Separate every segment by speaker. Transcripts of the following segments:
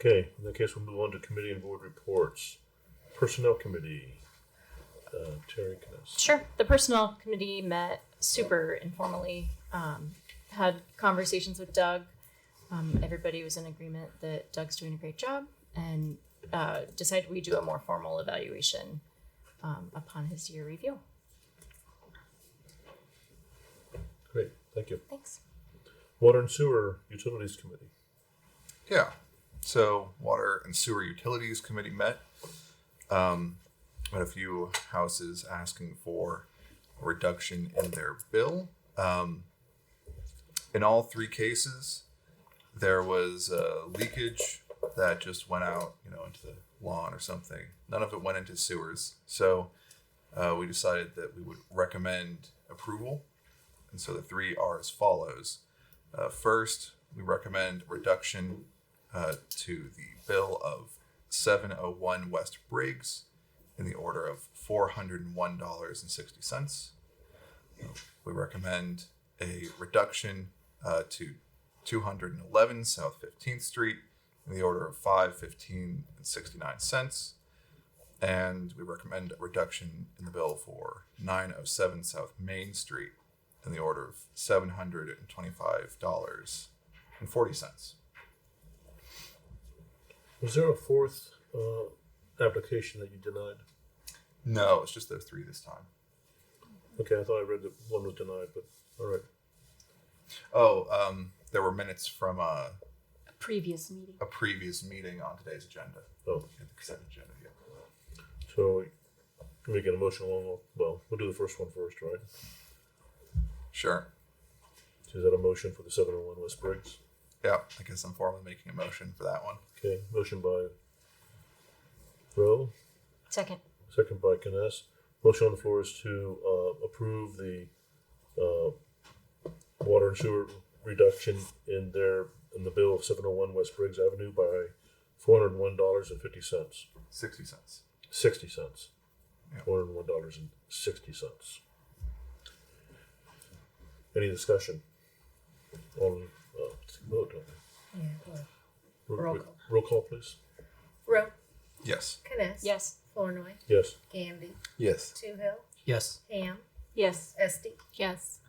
Speaker 1: Okay, in that case, we'll move on to committee and board reports. Personnel Committee, uh, Terry, can I? s-
Speaker 2: Sure. The personnel committee met super informally, um, had conversations with Doug. Um, everybody was in agreement that Doug's doing a great job and uh, decided we do a more formal evaluation um, upon his year review.
Speaker 1: Great, thank you.
Speaker 2: Thanks.
Speaker 1: Water and Sewer Utilities Committee.
Speaker 3: Yeah. So water and sewer utilities committee met. Um, had a few houses asking for a reduction in their bill. Um, in all three cases, there was uh, leakage that just went out, you know, into the lawn or something. None of it went into sewers. So uh, we decided that we would recommend approval. And so the three are as follows. Uh, first, we recommend reduction uh, to the bill of 701 West Briggs in the order of $401.60. We recommend a reduction uh, to 211 South 15th Street in the order of 515.69. And we recommend a reduction in the bill for 907 South Main Street in the order of seven hundred and twenty-five dollars and forty cents.
Speaker 1: Was there a fourth uh, application that you denied?
Speaker 3: No, it's just those three this time.
Speaker 1: Okay, I thought I read that one was denied, but all right.
Speaker 3: Oh, um, there were minutes from a,
Speaker 2: A previous meeting.
Speaker 3: a previous meeting on today's agenda.
Speaker 1: Oh,
Speaker 3: Yeah, the consent agenda. Yeah.
Speaker 1: so we get a motion along, well, we'll do the first one first, right?
Speaker 3: Sure.
Speaker 1: So Is that a motion for the 701 West Briggs?
Speaker 3: Yeah, I guess I'm formally making a motion for that one.
Speaker 1: Okay, motion by Rowe,
Speaker 2: Second.
Speaker 1: second by Kness. Motion on the floor is to uh, approve the uh, water and sewer reduction in their, in the bill of 701 West Briggs Avenue by $401.50.
Speaker 3: Sixty cents.
Speaker 1: 60 cents.
Speaker 3: Yeah.
Speaker 1: $401.60. Any discussion? On, uh, vote on it.
Speaker 4: Roll call.
Speaker 1: Roll call, please.
Speaker 4: Roe,
Speaker 3: Yes.
Speaker 4: Kness.
Speaker 2: Yes.
Speaker 4: Flournoy,
Speaker 1: Yes.
Speaker 4: Gandy,
Speaker 3: Yes.
Speaker 4: Two Hill,
Speaker 5: Yes.
Speaker 4: Ham,
Speaker 2: Yes.
Speaker 4: Esti.
Speaker 2: Yes.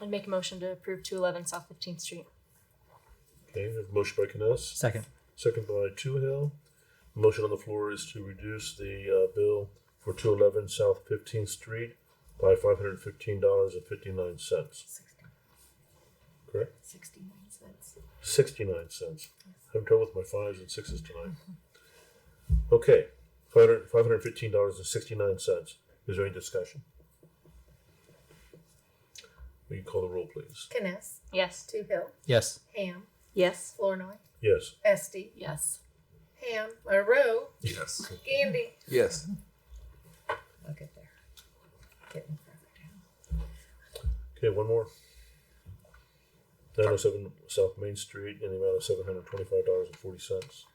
Speaker 2: I'd make a motion to approve 211 South 15th Street.
Speaker 1: Okay, we have a motion by Kness,
Speaker 5: Second.
Speaker 1: second by Toohill. Motion on the floor is to reduce the uh, bill for two eleven South Fifteenth Street by five hundred fifteen dollars and fifty nine cents. Correct,
Speaker 4: Sixty-nine cents.
Speaker 1: sixty nine cents. I'm trouble with my fives and sixes tonight. Okay, five hundred five hundred fifteen dollars and sixty nine cents. Is there any discussion? Will you call the roll, please?
Speaker 4: Kness,
Speaker 2: Yes.
Speaker 4: Two Hill,
Speaker 5: Yes.
Speaker 4: Ham,
Speaker 2: Yes.
Speaker 4: Flournoy,
Speaker 1: Yes.
Speaker 4: Esti,
Speaker 2: Yes.
Speaker 4: Ham, or Roe,
Speaker 3: Yes.
Speaker 4: Gandy.
Speaker 3: Yes.
Speaker 4: I'll get there. Getting further down.
Speaker 1: Okay, one more. Nine oh seven South Main Street in the amount of seven hundred twenty-five dollars and forty cents.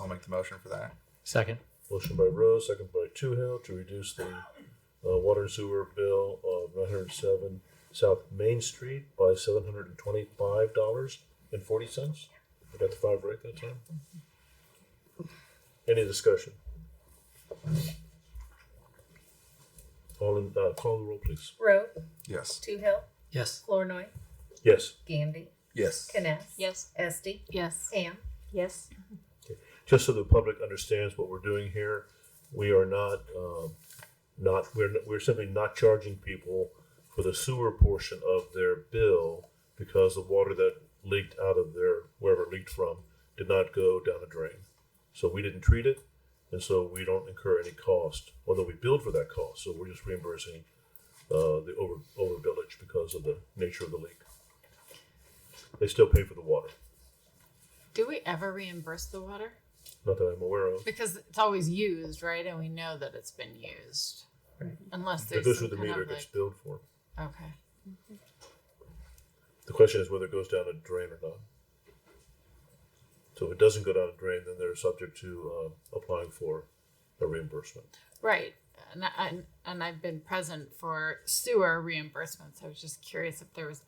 Speaker 3: I'll make the motion for that.
Speaker 5: Second.
Speaker 1: Motion by Rose, second by Toohill to reduce the uh, water and sewer bill of nine hundred seven South Main Street by seven hundred and twenty-five dollars and forty cents. I got the five right that time. Any discussion? All in, uh, call the roll, please.
Speaker 4: Roe,
Speaker 3: Yes.
Speaker 4: Two Hill,
Speaker 5: Yes.
Speaker 4: Flournoy,
Speaker 1: Yes.
Speaker 4: Gandy,
Speaker 3: Yes.
Speaker 4: Kness.
Speaker 2: Yes.
Speaker 4: Esti,
Speaker 2: Yes.
Speaker 4: Ham,
Speaker 2: Yes.
Speaker 1: just so the public understands what we're doing here, we are not, um, not, we're, we're simply not charging people for the sewer portion of their bill because the water that leaked out of their, wherever it leaked from, did not go down a drain. So we didn't treat it, and so we don't incur any cost, although we billed for that cost, so we're just reimbursing, uh, the over, over village because of the nature of the leak. They still pay for the water,
Speaker 6: Do we ever reimburse the water?
Speaker 1: not that I'm aware of.
Speaker 6: Because it's always used, right? And we know that it's been used.
Speaker 4: Right.
Speaker 6: Unless
Speaker 1: It
Speaker 6: there's
Speaker 1: goes
Speaker 6: some
Speaker 1: through the
Speaker 6: kind
Speaker 1: meter,
Speaker 6: of
Speaker 1: it gets
Speaker 6: like,
Speaker 1: billed for.
Speaker 6: okay.
Speaker 1: The question is whether it goes down a drain or not. So if it doesn't go down a drain, then they're subject to uh, applying for a reimbursement.
Speaker 6: Right. And, I, and I've been present for sewer reimbursements. I was just curious if there was